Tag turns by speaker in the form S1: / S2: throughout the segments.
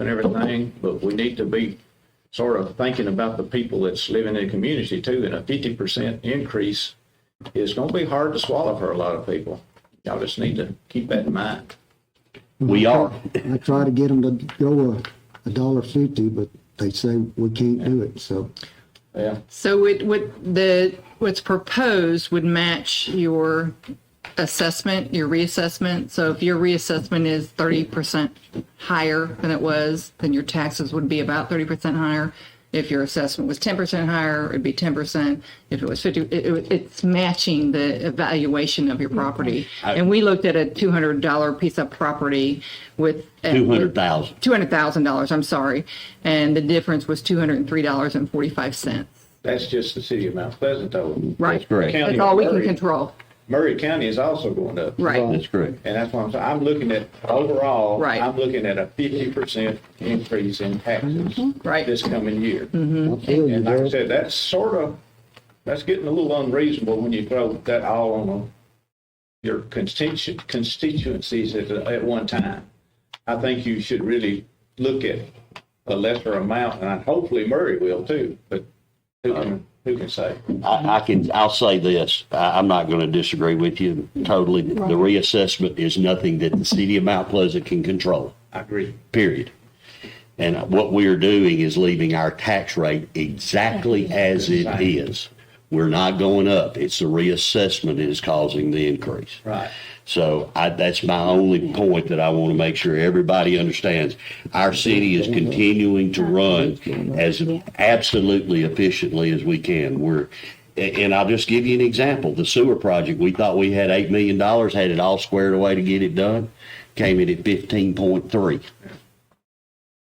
S1: and everything, but we need to be sort of thinking about the people that's living in the community too, and a fifty percent increase is gonna be hard to swallow for a lot of people. Y'all just need to keep that in mind.
S2: We are.
S3: I try to get them to go a, a dollar fifty, but they say we can't do it, so.
S1: Yeah,
S4: So it would, the, what's proposed would match your assessment, your reassessment. So if your reassessment is thirty percent higher than it was, then your taxes would be about thirty percent higher. If your assessment was ten percent higher, it'd be ten percent. If it was fifty, it, it- it's matching the evaluation of your property. And we looked at a two hundred dollar piece of property with. uh,
S2: Two hundred thousand.
S4: Two hundred thousand dollars, I'm sorry. And the difference was two hundred and three dollars and forty-five cents.
S1: that's just the city of Mount Pleasant though.
S4: Right.
S2: That's correct.
S1: County
S4: That's all we can
S1: Murray.
S4: control.
S1: Murray County is also going up.
S4: Right.
S2: That's correct.
S1: And that's why I'm saying, I'm looking at, overall,
S4: Right.
S1: I'm looking at a fifty percent increase in taxes
S4: Right.
S1: this coming year.
S2: Hmm.
S3: I feel you,
S1: And like I
S3: Daryl.
S1: said, that's sort of, that's getting a little unreasonable when you throw that all on a- your constitu- constituencies at, at one time. I think you should really look at a lesser amount, and hopefully Murray will too, but who can, who can say?
S2: I, I can, I'll say this, I, I'm not going to disagree with you totally. The reassessment is nothing that the city of Mount Pleasant can control,
S1: I agree.
S2: period. And what we are doing is leaving our tax rate exactly as it is. We're not going up. It's the reassessment that is causing the increase.
S1: Right.
S2: So I, that's my only point that I want to make sure everybody understands. Our city is continuing to run as absolutely efficiently as we can. We're, a- and I'll just give you an example. The sewer project, we thought we had $8 million, had it all squared away to get it done, came in at 15.3.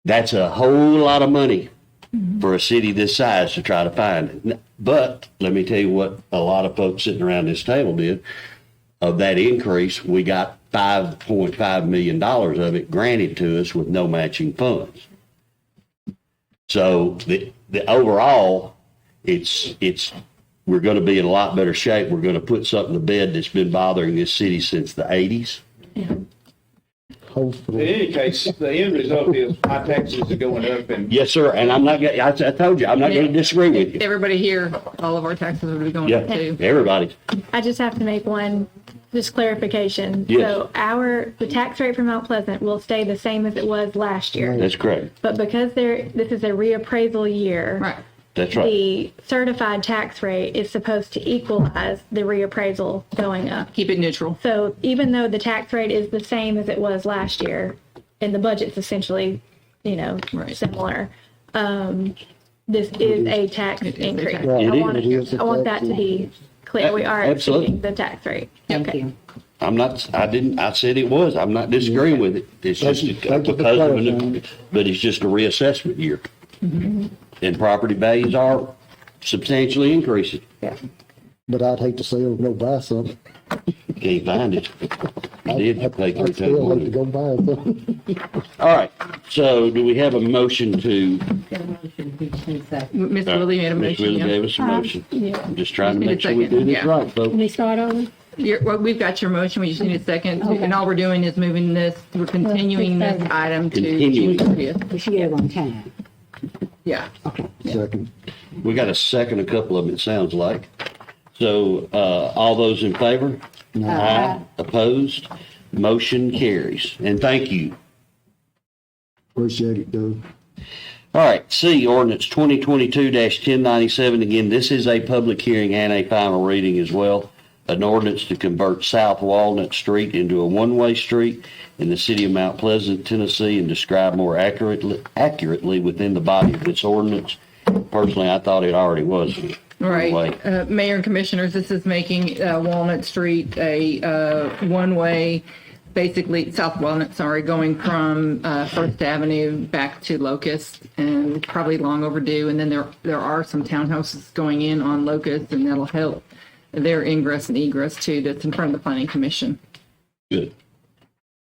S2: That's a whole lot of money for a city this size to try to find. But let me tell you what a lot of folks sitting around this table did of that increase, we got five point five million dollars of it granted to us with no matching funds. So the, the overall, it's, it's, we're gonna be in a lot better shape. We're gonna put something to bed that's been bothering this city since the eighties.
S1: In
S3: Hopefully,
S1: any case, the end result is my taxes are going up and
S2: Yes, sir, and I'm not, gonna- I, I told you, I'm not gonna disagree with you.
S4: Everybody here, all of our taxes would be going
S2: Yeah,
S4: up too.
S2: everybody.
S5: I just have to make one, just clarification.
S2: Yes.
S5: So our, the tax rate for Mount Pleasant will stay the same as it was last year.
S2: That's correct.
S5: But because there, this is a reappraisal year.
S4: Right.
S2: That's right.
S5: The certified tax rate is supposed to equalize the reappraisal going up.
S4: Keep it neutral.
S5: So even though the tax rate is the same as it was last year, and the budget's essentially, you know,
S4: Right.
S5: similar, um, this is a tax
S4: It is a
S5: increase.
S4: tax.
S5: I
S2: It
S5: want,
S3: is.
S5: I want that to be clear. We are
S2: Absolutely.
S5: exceeding the tax rate.
S4: Thank
S5: Okay.
S4: you.
S2: I'm not, I didn't, I said it was. I'm not disagreeing with it. It's
S3: Thank
S2: just
S3: you. Thank
S2: because
S3: you for
S2: of, an-
S3: clarifying.
S2: but it's just a reassessment year.
S4: Mm-hmm.
S2: And property values are substantially increasing.
S3: but I'd hate to see them go buy something.
S2: Can't find it. I did pay three
S3: I'd
S2: times.
S3: still like to go
S2: money.
S3: buy something.
S2: All right, so do we have a motion to?
S6: Got a motion, we can second.
S4: Ms. Willie made a
S2: Ms. Willie gave
S4: motion. Uh-huh.
S2: us a motion. I'm just trying to
S4: Need a
S2: make sure we do
S4: second,
S2: this
S4: yeah.
S2: right, folks.
S6: We start over?
S4: you well, we've got your motion. We just need a second.
S6: Okay.
S4: And all we're doing is moving this, we're continuing this
S6: Continuing.
S4: item to June
S2: Continuing.
S4: 30th.
S6: We should get it on time.
S4: Yeah.
S3: Second,
S2: We got a second, a couple of them, it sounds like. So, uh, all those in favor? Aye. Opposed? Motion carries. And thank you.
S3: appreciate it, though.
S2: All right, C, ordinance 2022-1097. Again, this is a public hearing and a final reading as well. An ordinance to convert South Walnut Street into a one-way street in the city of Mount Pleasant, Tennessee, and describe more accurately, accurately within the body of this ordinance. Personally, I thought it already was. Anyway,
S4: Right. Uh, Mayor and Commissioners, this is making uh, Walnut Street a uh, one-way, basically, South Walnut, sorry, going from uh, First Avenue back to Locust and probably long overdue. And then there, there are some townhouses going in on Locust and that'll help their ingress and egress too, that's in front of the Planning Commission.
S2: Good.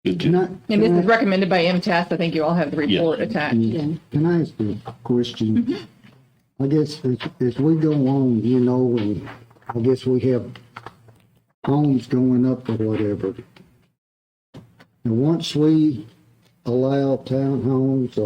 S2: Good. deal.
S4: And this is recommended by MTS. I think you all have the report attached.
S3: Can I ask you a question?
S2: Mm-hmm.
S3: I guess as, as we go on, you know, and I guess we have homes going up or whatever. And once we allow townhomes or